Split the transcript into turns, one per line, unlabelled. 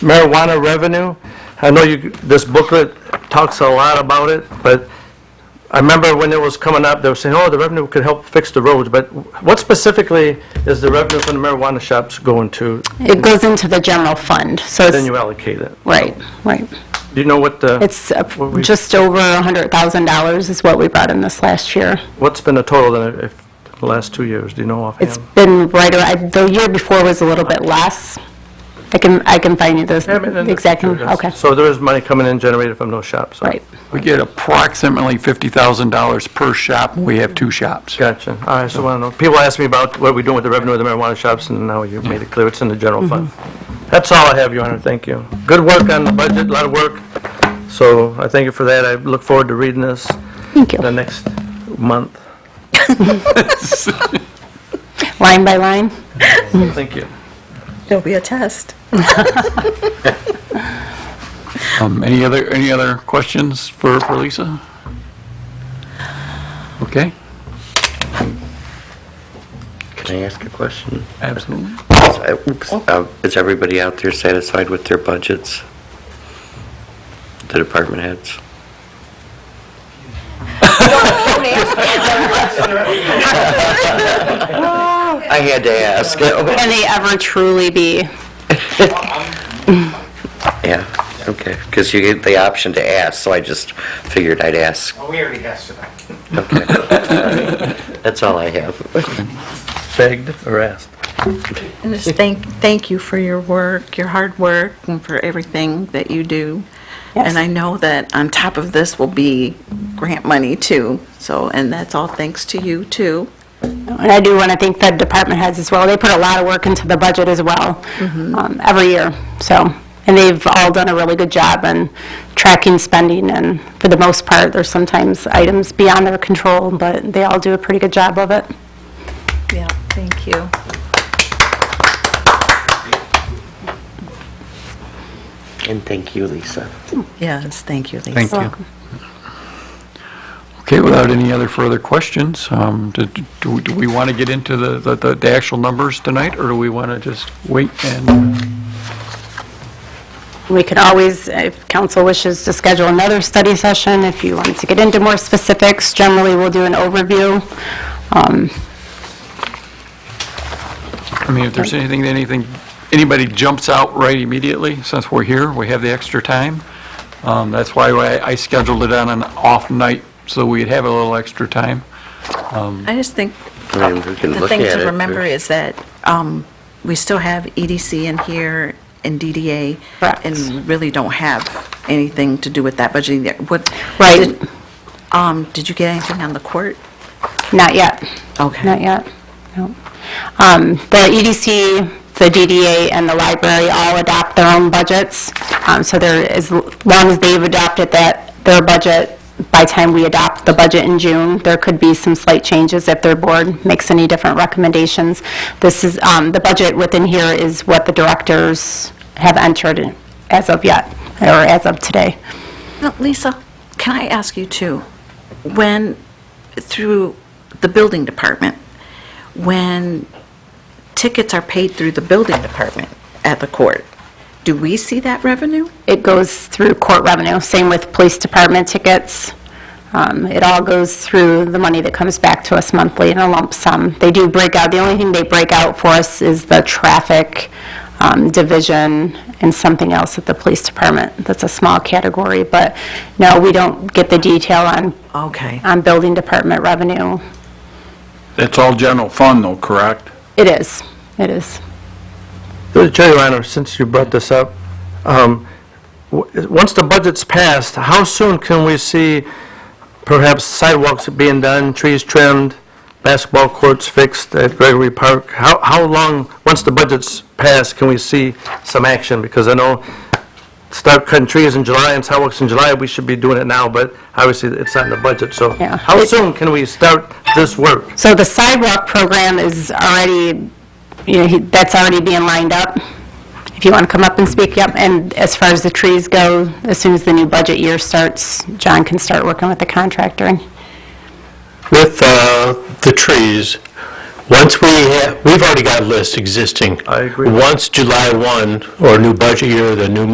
marijuana revenue. I know you, this booklet talks a lot about it, but I remember when it was coming up, they were saying, oh, the revenue could help fix the roads, but what specifically is the revenue from the marijuana shops going to,
It goes into the general fund, so
then
it's,
you allocate it?
right, right.
Do you know what the,
It's uh,
What we-
just over $100,000 is what we brought in this last year.
what's been the total in the- if- the last two years? Do you know
It's
offhand?
been right, around the year before was a little bit less. I can, I can find you this,
Yeah, I mean, in the
exactly,
future, that's-
okay,
So there is money coming in generated from those shops?
right.
We get approximately $50,000 per shop, and we have two shops.
Gotcha. All right, so I don't know. People ask me about what we doing with the revenue of the marijuana shops, and now you made it clear it's in the general fund. That's all I have, Your Honor. Thank you. Good work on the budget, a lot of work. So I thank you for that. I look forward to reading this
Thank
the
you.
next month.
Line by line?
Thank you.
There'll be a test.
Um, Any other, any other questions for for Lisa? Okay,
Can I ask a question?
absolutely.
Is, uh, oops, uh, is everybody out there satisfied with their budgets? The department heads? I had to ask.
Can they ever truly be?
Yeah, okay, because you get the option to ask, so I just figured I'd ask.
Oh, we already asked you that.
Okay. That's all I have.
Begged or asked?
And just thank, thank you for your work, your hard work, and for everything that you do. And I know that on top of this will be grant money too, so, and that's all thanks to you too.
And I do want to thank the department heads as well. They put a lot of work into the budget as well,
Mm-hmm.
um, every year, so. And they've all done a really good job in tracking spending, and for the most part, there's sometimes items beyond their control, but they all do a pretty good job of it.
Yeah, thank you.
And thank you, Lisa.
Yes, thank you, Lisa.
Thank you. Okay, without any other further questions, um, do do- do we want to get into the- the the- the actual numbers tonight, or do we want to just wait and,
We could always, if council wishes to schedule another study session, if you wanted to get into more specifics, generally, we'll do an overview. Um,
I mean, if there's anything, anything, anybody jumps out right immediately, since we're here, we have the extra time. Um, That's why I I scheduled it on an off night, so we'd have a little extra time.
I just think
I mean, we can
the
look
thing
at
to
it.
remember is that um, we still have EDC in here and DDA.
Correct.
And really don't have anything to do with that budgeting. there. What?
Right.
did- um, Did you get anything on the court?
Not yet.
Okay.
Not yet, no. Um, The EDC, the DDA, and the library all adopt their own budgets, Um, so they're, as long as they've adopted that, their budget, by time we adopt the budget in June, there could be some slight changes if their board makes any different recommendations. This is, um, the budget within here is what the directors have entered as of yet, or as of today.
No, Lisa, can I ask you too? When, through the building department, when tickets are paid through the building department at the court, do we see that revenue?
It goes through court revenue, same with police department tickets. Um, It all goes through the money that comes back to us monthly in a lump sum. They do break out, the only thing they break out for us is the traffic um, division and something else at the police department. That's a small category, but no, we don't get the detail on,
Okay.
on building department revenue.
That's all general fund though, correct?
It is, it is.
Through the Chair, Your Honor, since you brought this up, um, w- once the budget's passed, how soon can we see perhaps sidewalks being done, trees trimmed, basketball courts fixed at Gregory Park? How, how long, once the budget's passed, can we see some action? Because I know start cutting trees in July and sidewalks in July, we should be doing it now, but obviously it's not in the budget, so.
Yeah.
How soon can we start this work?
So the sidewalk program is already, you know, he- that's already being lined up. If you want to come up and speak, yep. And as far as the trees go, as soon as the new budget year starts, John can start working with the contractor. And
With uh, the trees,
Once we, ha- we've already got lists existing.
I agree.
Once July 1, or new budget year, the new